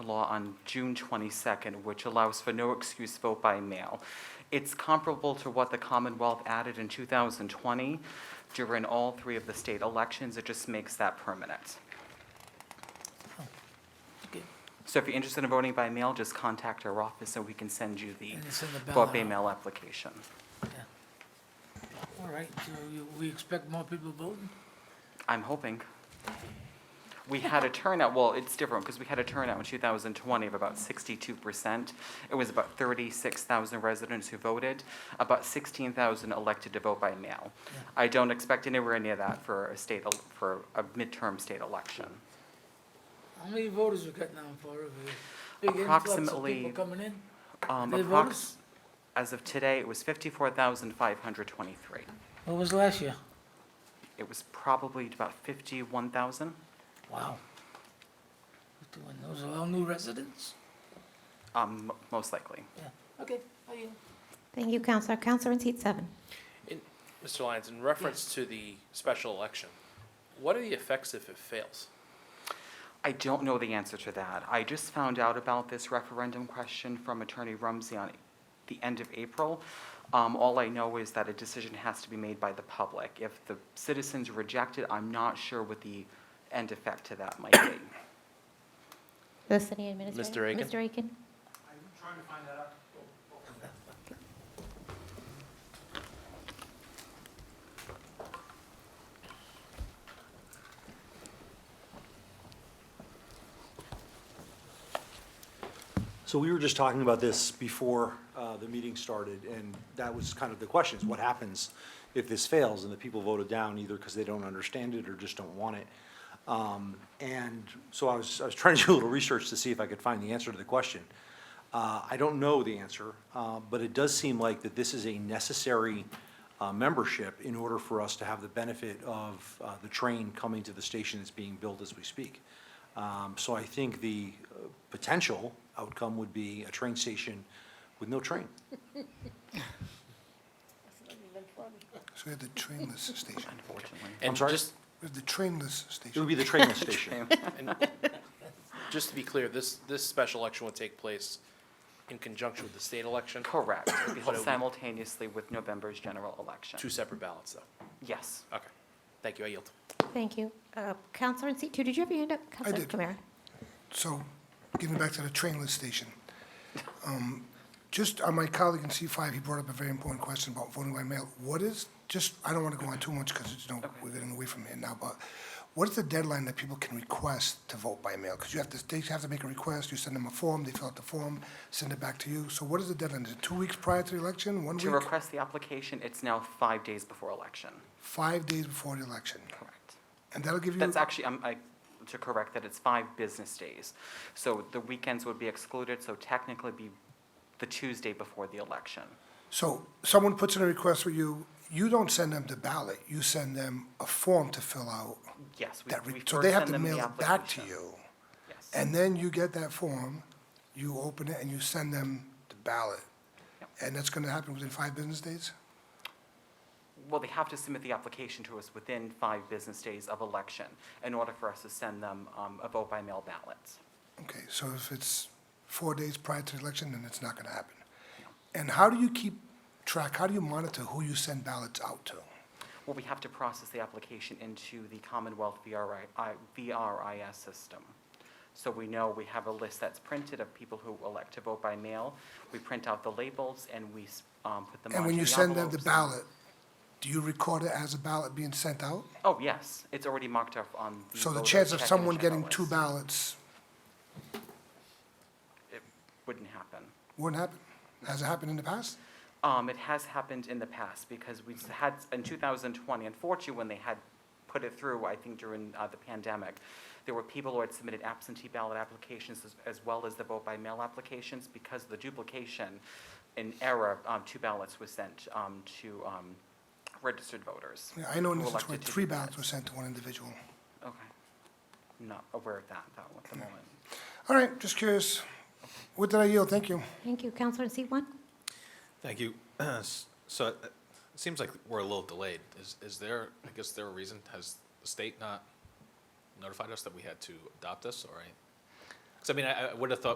law on June 22nd, which allows for no excuse vote by mail. It's comparable to what the Commonwealth added in 2020 during all three of the state elections. It just makes that permanent. Okay. So if you're interested in voting by mail, just contact our office and we can send you the And it's in the vote by ballot. mail application. All right, so you- we expect more people voting? I'm hoping. We had a turnout, well, it's different, because we had a turnout in 2020 of about 62%. It was about 36,000 residents who voted, about 16,000 elected to vote by mail. I don't expect anywhere near that for a state, el- for a midterm state election. How many voters we got now for a big influx of Approximately- people coming in? Um, Any approx- voters? As of today, it was 54,523. What was last year? It was probably about 51,000. Wow. Doing Those are all new residents? Um, m- most likely. Yeah, okay, I yield. Thank you, Counselor. Counselor in seat seven. In- Mr. Lyons, in reference to the special election, what are the effects if it fails? I don't know the answer to that. I just found out about this referendum question from Attorney Rumsey on the end of April. Um, All I know is that a decision has to be made by the public. If the citizens reject it, I'm not sure what the end effect to that might be. The city administrator. Mr. Aiken. Mr. Aiken. So we were just talking about this before uh, the meeting started, and that was kind of the question, is what happens if this fails and the people voted down either because they don't understand it or just don't want it? Um, And so I was, I was trying to do a little research to see if I could find the answer to the question. Uh, I don't know the answer, uh, but it does seem like that this is a necessary uh, membership in order for us to have the benefit of uh, the train coming to the station that's being built as we speak. Um, So I think the uh, potential outcome would be a train station with no train. So we have the trainless station. Unfortunately. And sorry? just- We have the trainless It would station. be the trainless station. and Just to be clear, this, this special election would take place in conjunction with the state election, Correct. It'd be held So we- Simultaneously with November's general election. two separate ballots, though. Yes. Okay, thank you, I yield. Thank you. Uh, Counselor in seat two, did you have your hand up? Counselor did. Kamara. So getting back to the trainless station. um, Just on my colleague in C5, he brought up a very important question about voting by mail. What is, just, I don't want to go on too much because it's, no, we're getting away from here now, but what is the deadline that people can request to vote by mail? Because you have to, they have to make a request, you send them a form, they fill out the form, send it back to you. So what is the deadline? Is it two weeks prior to the election, one To week? request the application, it's now five days before election. Five days before the election. Correct. And that'll give you. That's actually, um, I, to correct that, it's five business days. So the weekends would be excluded, so technically be the Tuesday before the election. So someone puts in a request for you, you don't send them the ballot, you send them a form to fill out. Yes. we- that we re- So first they have send to them the mail it back to application. you. Yes. And then you get that form, you open it, and you send them the ballot. Yep. And that's gonna happen within five business days? Well, they have to submit the application to us within five business days of election in order for us to send them um, a vote by mail ballot. Okay, so if it's four days prior to the election, then it's not gonna happen. And how do you keep track, how do you monitor who you send ballots out to? Well, we have to process the application into the Commonwealth VRI I- VRIS system. So we know we have a list that's printed of people who elect to vote by mail. We print out the labels and we s- um, put them And onto when you send them the envelopes. ballot, do you record it as a ballot being sent out? Oh, yes, it's already marked up on. So the voter chance of check-in someone checkout getting list. two ballots Wouldn't happen. Wouldn't happen? Has it happened in the past? Um, It has happened in the past because we had, in 2020, unfortunately, when they had put it through, I think during uh, the pandemic, there were people who had submitted absentee ballot applications as- as well as the vote-by-mail applications because of the duplication in error, um, two ballots were sent um, to um, registered voters. Yeah, I know in who this where elected to three do that. ballots were sent to one individual. Okay. I'm Not aware of that, though, at the moment. All right, just curious. What did I yield? Thank you. Thank you. Counselor in seat one. Thank you. S- So uh, it seems like we're a little delayed. Is, is there, I guess there a reason? Has the state not notified us that we had to adopt this, or I- Because I mean, I, I would have thought